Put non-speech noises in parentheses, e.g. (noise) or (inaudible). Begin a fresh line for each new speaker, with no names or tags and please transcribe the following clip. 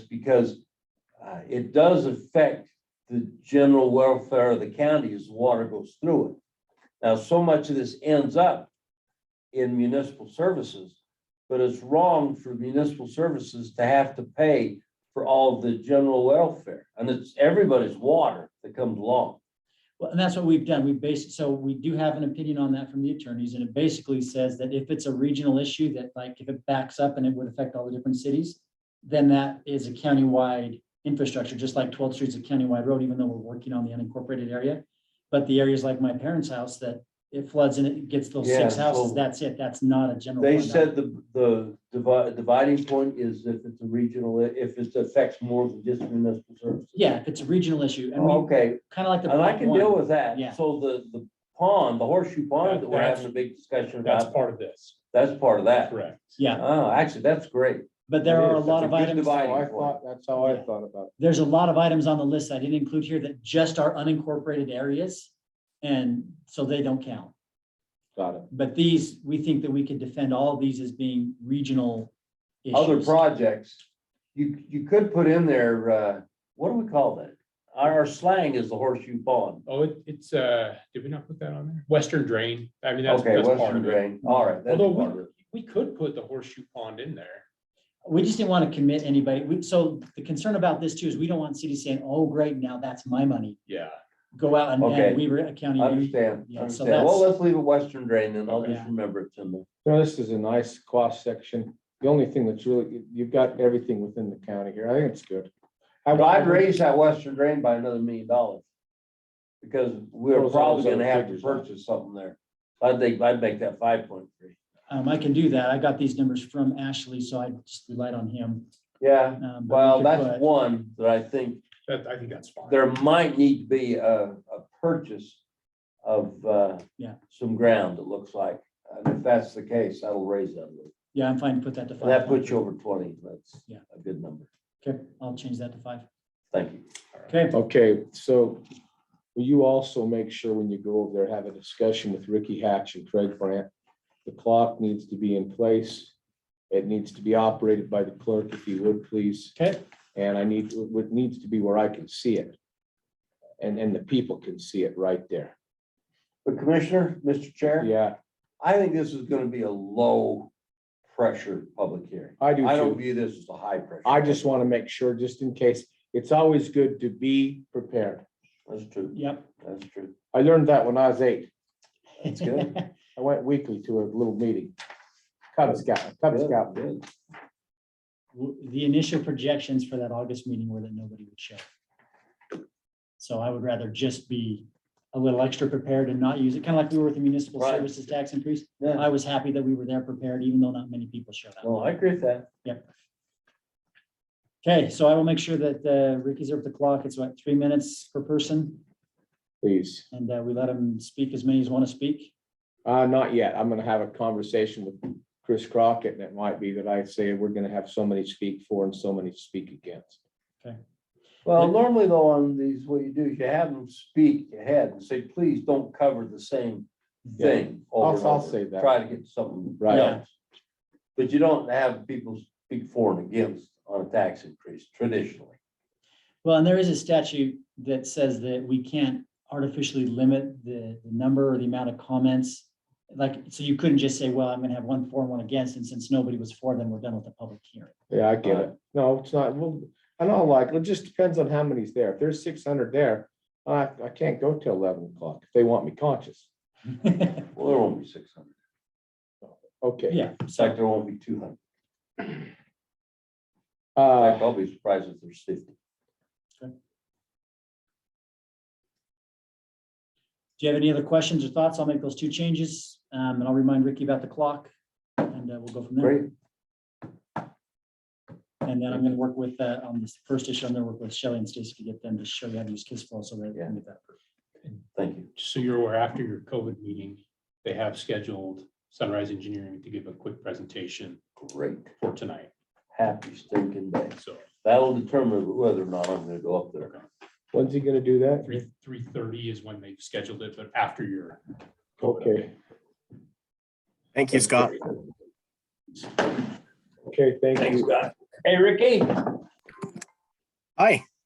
because uh, it does affect the general welfare of the county as water goes through it. Now, so much of this ends up in municipal services, but it's wrong for municipal services to have to pay for all of the general welfare. And it's everybody's water that comes along.
Well, and that's what we've done. We based, so we do have an opinion on that from the attorneys, and it basically says that if it's a regional issue that like if it backs up and it would affect all the different cities, then that is a countywide infrastructure, just like 12th Street's a countywide road, even though we're working on the unincorporated area. But the areas like my parents' house that it floods and it gets those
Yeah,
six
so-
houses, that's it. That's not a general.
They
fund.
said the, the divi- dividing point is if it's a regional, if it affects more than just municipal services.
Yeah, if it's a regional issue and we
Oh, Okay,
kind of like the.
And I
Prop
can
one.
deal with that.
Yeah.
So the, the pond, the horseshoe pond that we're having a big discussion
That's
about,
part of this,
that's part of that.
correct.
Yeah,
Oh, actually, that's great.
but there
It
are
is.
a lot
That's a
of
good
items.
divide.
How I thought, that's how I
Yeah.
thought about it.
there's a lot of items on the list I didn't include here that just are unincorporated areas. And so they don't count.
Got it.
But these, we think that we could defend all of these as being regional
Other
issues.
projects, you, you could put in there, uh, what do we call that? Our slang is the horseshoe pond.
Oh, it- it's, uh, did we not put that on there? Western drain, I mean, that's,
Okay,
that's part
western
of it.
drain. All right. that's
Although
part of
we,
it.
we could put the horseshoe pond in there.
We just didn't want to commit anybody. We, so the concern about this too is we don't want cities saying, oh, great, now that's my money.
Yeah,
Go out and,
Okay.
and Weaver County.
Understand,
Yeah, so
understand. Well,
that's-
let's leave it western drain and I'll just
Yeah.
remember it's in there.
Now, this is a nice cross section. The only thing that's really, you- you've got everything within the county here. I think it's good. I-
But I'd raise that western drain by another million dollars. Because we're
Those are
probably
those
gonna
other
have to
figures, huh?
purchase something there. I think I'd make that five point three.
Um, I can do that. I got these numbers from Ashley, so I just relied on him.
Yeah,
Um, but we
well,
could
that's
put-
one that I think
that, I think that's fine.
there might need to be a, a purchase of, uh,
Yeah.
some ground, it looks like. And if that's the case, that'll raise that. a little.
Yeah, I'm fine to put that to five.
And that puts you over twenty, that's
Yeah.
a good number.
Okay, I'll change that to five.
Thank you.
Okay.
Okay, so will you also make sure when you go over there, have a discussion with Ricky Hatch and Craig Brandt? The clock needs to be in place. It needs to be operated by the clerk, if you would, please.
Okay.
And I need, what needs to be where I can see it. And, and the people can see it right there.
But Commissioner, Mr. Chair?
Yeah,
I think this is gonna be a low pressure public hearing.
I do
I don't
too.
view this as a high pressure.
I just want to make sure, just in case, it's always good to be prepared.
That's true,
Yep.
that's true.
I learned that when I was eight.
That's
(laughs)
good.
I went weekly to a little meeting. Cub Scout, Cub
Good,
Scout.
good.
w- the initial projections for that August meeting were that nobody would show. So I would rather just be a little extra prepared and not use it, kind of like we were with the municipal
Right.
services tax increase.
Yeah,
I was happy that we were there prepared, even though not many people showed up.
no, I agree with that.
Okay, so I will make sure that uh, Ricky's up the clock. It's like three minutes per person,
Please,
and uh, we let them speak as many as want to speak.
uh, not yet. I'm gonna have a conversation with Chris Crockett and it might be that I say we're gonna have so many speak for and so many speak against.
Well, normally though, on these, what you do is you have them speak ahead and say, please don't cover the same thing. over and
I'll- I'll
over.
say that.
Try to get something
Right.
else. But you don't have people speak for and against on a tax increase traditionally.
Well, and there is a statute that says that we can't artificially limit the the number or the amount of comments. Like, so you couldn't just say, well, I'm gonna have one for and one against, and since nobody was for, then we're done with the public hearing.
Yeah, I get it. No, it's not, well, I know, like, it just depends on how many's there. If there's six hundred there, I, I can't go till eleven o'clock if they want me conscious.
Well, there won't be six hundred.
Okay.
Yeah,
In
so,
fact, there won't be two hundred. In
Uh,
fact, I'll be surprised if there's fifty.
do you have any other questions or thoughts? I'll make those two changes, um, and I'll remind Ricky about the clock, and uh, we'll go from there.
Great.
And then I'm gonna work with, uh, on this first issue, I'm gonna work with Shelley and Stacy to get them to show you how to use Kiss Flow so that. we can get that approved.
Thank you.
So you're aware, after your COVID meeting, they have scheduled Sunrise Engineering to give a quick presentation
Great.
for tonight,
Happy stinking day.
so.
That'll determine whether or not I'm gonna go up there.
when's he gonna do that?
Three, three thirty is when they scheduled it, but after your. COVID
Okay.
update.
Thank you, Scott.
Okay, thank you.
Hey, Ricky.
Hi,